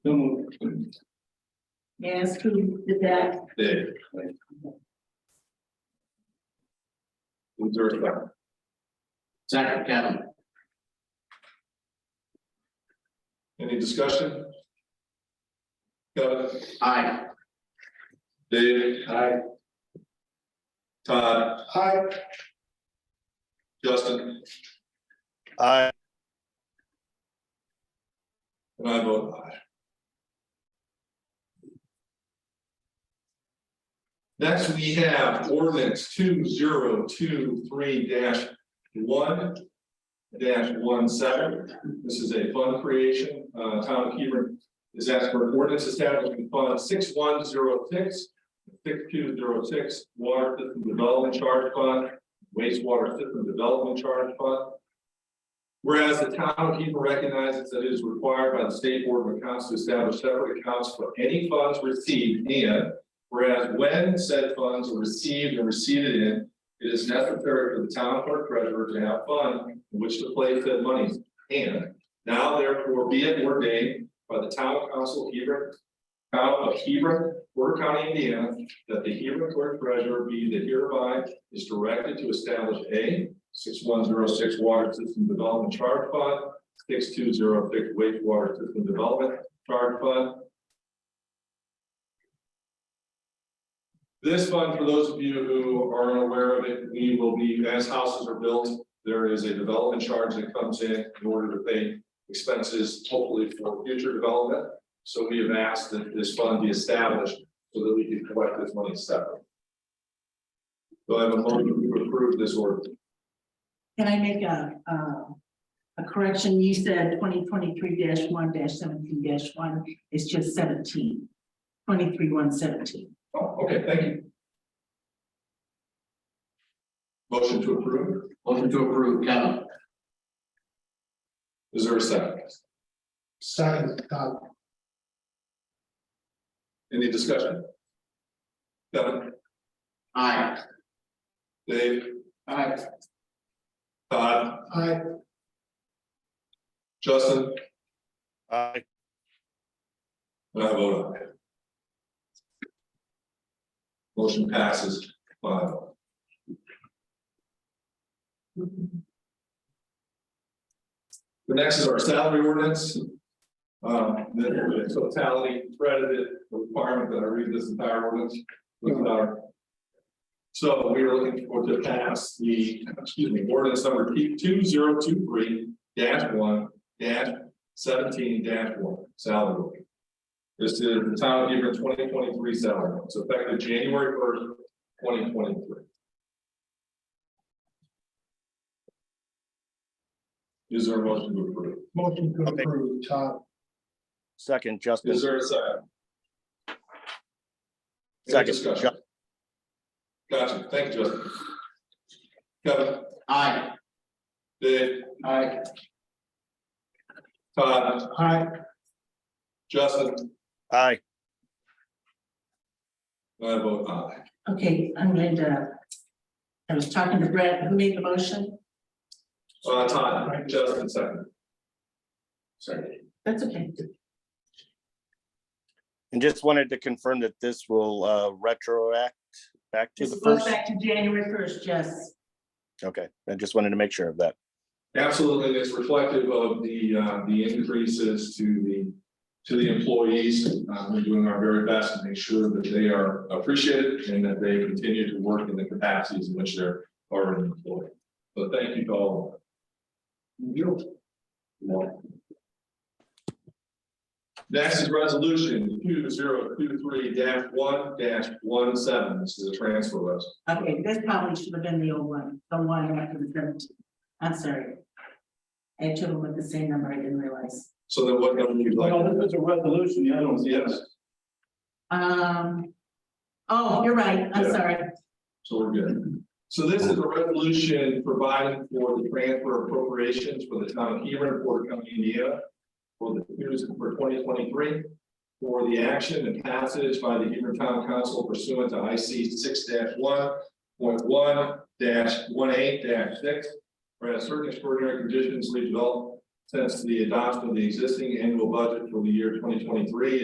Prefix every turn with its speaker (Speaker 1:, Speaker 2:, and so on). Speaker 1: Yes, who did that?
Speaker 2: Dave. Is there a second?
Speaker 3: Second, Kevin.
Speaker 2: Any discussion? Kevin,
Speaker 3: Aye.
Speaker 2: Dave. Hi. Todd. Hi. Justin,
Speaker 4: Aye.
Speaker 2: and I vote aye. Next, we have ordinance two zero two three one one seven. This is a fund creation. Uh, Town of Hebron is asking for ordinance establishing fund six one zero six, six two zero six, water system development charge fund, wastewater system development charge fund. Whereas the town of Hebron recognizes that it is required by the state board of accounts to establish separate accounts for any funds received and whereas when said funds are received and received in, it is necessary for the town clerk treasurer to have fund in which to place said monies. And now therefore be it ordained by the town council of Hebron, town of Hebron, Porter County, Indiana, that the Hebron clerk treasurer be that hereby is directed to establish a six one zero six water system development charge fund, six two zero six wastewater system development charge fund, This fund, for those of you who aren't aware of it, we will be, as houses are built, there is a development charge that comes in in order to pay expenses hopefully for future development. So we have asked that this fund be established so that we can collect this money separately. So I have a motion to approve this order.
Speaker 1: Can I make a, uh, a correction? You said twenty twenty-three one seventeen one, it's just seventeen. Twenty-three one seventeen.
Speaker 2: Oh, okay, thank you. Motion to approve.
Speaker 3: Motion to approve, Kevin.
Speaker 2: Is there a second?
Speaker 5: Second, Todd.
Speaker 2: Any discussion? Kevin,
Speaker 3: Aye.
Speaker 2: Dave,
Speaker 3: Aye.
Speaker 2: Todd?
Speaker 5: Aye.
Speaker 2: Justin,
Speaker 4: Aye.
Speaker 2: and I vote aye. Motion passes five. oh. The next is our salary ordinance. Um, the the totality credited the requirement that I read this entire ordinance with our. So we are looking for to pass the, excuse me, ordinance number two zero two three dash one dash seventeen dash one, salary. ordinance. This is the town of Hebron twenty twenty-three salary, it's effective January first, twenty twenty-three. Is there a motion to approve?
Speaker 5: Motion to approve, Todd.
Speaker 4: Second, Justin.
Speaker 2: Is there a second? Any
Speaker 4: Second.
Speaker 2: discussion? Gotcha, thank you, Justin. Kevin,
Speaker 3: Aye.
Speaker 2: Dave,
Speaker 3: Aye.
Speaker 2: Todd,
Speaker 5: Aye.
Speaker 2: Justin,
Speaker 4: Aye.
Speaker 2: I vote aye.
Speaker 1: Okay, I'm going to, I was talking to Brett, who made the motion?
Speaker 2: Uh, Todd, Justin, second.
Speaker 3: Second.
Speaker 1: That's okay.
Speaker 4: And just wanted to confirm that this will uh retroact back to
Speaker 1: This
Speaker 4: the
Speaker 1: goes
Speaker 4: first.
Speaker 1: back to January first, yes.
Speaker 4: Okay, I just wanted to make sure of that.
Speaker 2: Absolutely, it's reflective of the, uh, the increases to the, to the employees. Uh, we're doing our very best to make sure that they are appreciated and that they continue to work in the capacities in which they're already employed. So thank you to all. Beautiful. Next is resolution two zero two three one one seven. This is a transfer list.
Speaker 1: Okay, this probably should have been the old one, the one after the seventeen. I'm sorry. I had them with the same number, I didn't realize.
Speaker 2: So then what number you'd like?
Speaker 6: No, this is a resolution, the other one's the
Speaker 2: Yes,
Speaker 1: Um, oh, you're right, I'm
Speaker 2: Yeah.
Speaker 1: sorry.
Speaker 2: So we're good. So this is a resolution providing for the transfer appropriations for the town of Hebron, Porter County, Indiana. For the years for twenty twenty-three. For the action and passage by the Hebron Town Council pursuant to I C six one point one one eight six. Whereas certain extraordinary conditions leave developed since the adoption of the existing annual budget for the year twenty twenty-three